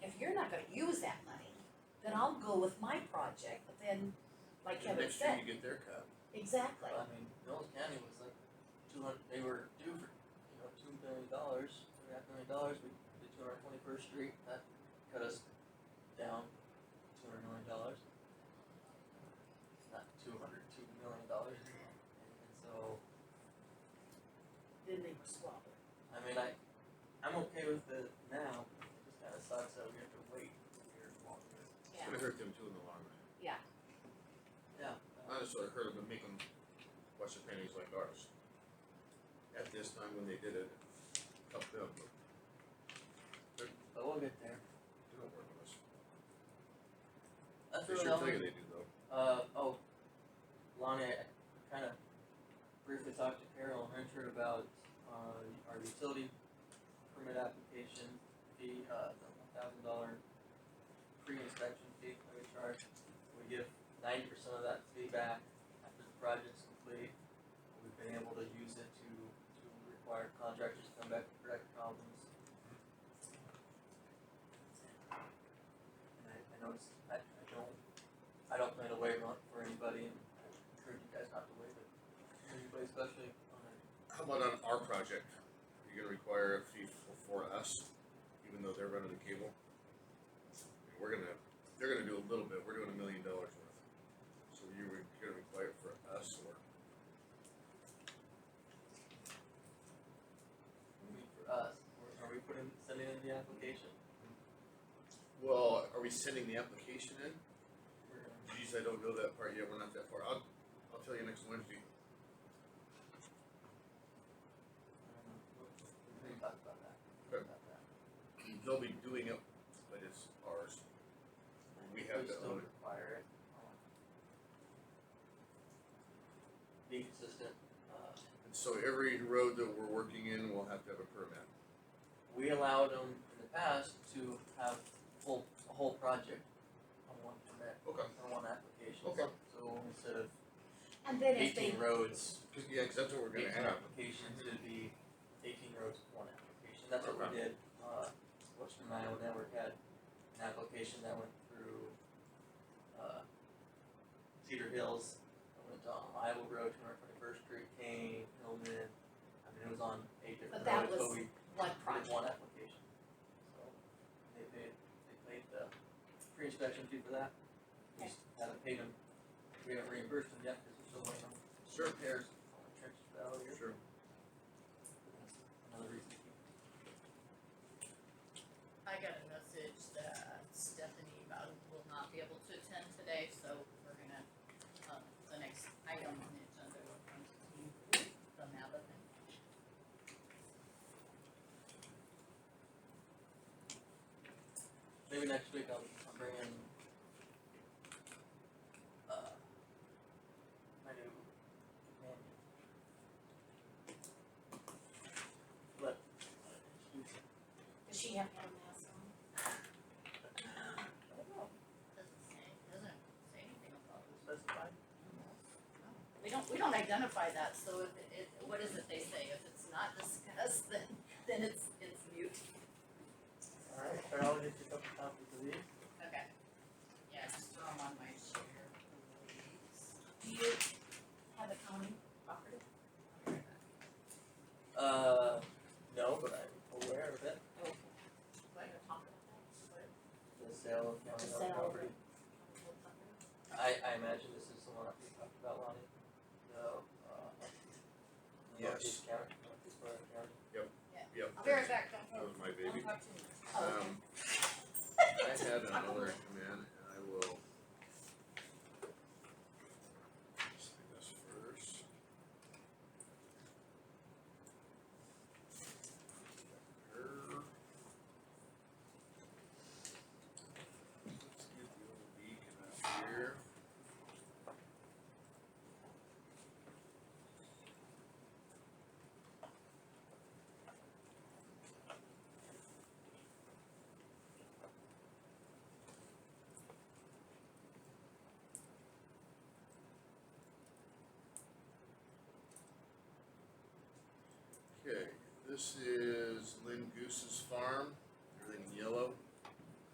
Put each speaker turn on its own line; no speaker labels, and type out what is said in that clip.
I'll go with my project, but then, like Kevin
Next year
said,
you get their cut.
exactly.
I mean, Mills County was like two hundred, they were due for, you know, two million dollars, two and a half million dollars, we did two hundred twenty-first street, that cut us down two hundred million dollars. Not two hundred, two million dollars, and so,
Then they were squabbling.
I mean, I, I'm okay with the now, it just kinda sucks that we have to wait a year longer.
It's gonna hurt them too in the long run.
Yeah. uh,
Not necessarily hurt them, but make them watch the pennies like ours. At this time when they did it, helped them, but
But we'll get there,
they don't work with us.
that's
They
really
sure
all.
tell you they do though.
Uh, oh, Lonnie, I kind of briefly talked to Carol and Richard about, uh, our utility permit application, the, uh, the one thousand dollar pre-inspection fee that we charge. We give ninety percent of that fee back after the project's complete. We've been able to use it to, to require contractors to come back and correct problems. And I, I noticed, I, I don't I don't plan to waive on for anybody and I encourage you guys not to waive it. for Anybody especially on a,
How about on our project? You're gonna require a fee for, for us, even though they're running the cable? I mean, We're gonna, they're gonna do a little bit, we're doing a million dollars worth. So you were, you're gonna require it for us or,
I mean, for us, we're- are we putting, sending in the application?
well, are we sending the application in?
We're gonna,
Geez, I don't know that part yet, we're not that far, I'll, I'll tell you next Wednesday.
I don't know, we'll- we're gonna talk about that.
Okay.
About that.
They'll be doing it, but it's ours. We have to
still
own it.
require it. um, Be consistent, uh,
And so every road that we're working in will have to have a permit.
we allowed them in the past to have full, a whole project on one permit,
Okay.
on one application.
Okay.
So instead of
And then if they,
eighteen roads,
Cause, yeah, 'cause that's what we're gonna
Eighteen
have.
applications to the eighteen roads, one application, that's what we did, uh, Western Iowa Network had an application that went through, uh, Cedar Hills, it went down Iowa Road, two hundred twenty-first Street, Kane, Hillman, I mean, it was on eight
But
different
that
roads, but
was
we
one
did
project,
one application, so, they paid, they paid the pre-inspection fee for that, we
Okay.
just haven't paid them, we haven't reimbursed them yet, cause we're still waiting on
Sure.
repairs on the trench valve here.
Sure.
Another reason to keep
I got a message that Stephanie about will not be able to attend today, so we're gonna, um, the next item on the agenda will come to you from Alabama.
Maybe next week I'll, I'll bring in, uh, my new companion. But,
does she have to have a mask on?
I don't know,
Doesn't say, doesn't say anything about
it's
this.
specified.
We don't, we don't identify that, so if it, it- what is it they say? If it's not discussed, then, then it's, it's mute.
Alright, or I'll just pick up the topic of these.
Okay. Yeah, just throw 'em on my chair, please.
Do you have a county property? Oh,
I'll be right back.
Uh, no, but I'm aware of it,
Oh, okay. Do I gotta talk about that? What-
the sale of
The
county
sale
owned
of-
property.
what property?
I, I imagine this is the one that we talked about, Lonnie, the, uh, Northeast County, Northeast Florida County.
Yep.
I'll be right back, don't
That
go.
was my
Don't
baby.
talk too much.
Oh, okay.
Um, I had another command and I will. Let's do this first. Her. Let's get the old beacon up here. Okay, this is Lynn Goose's farm, everything yellow.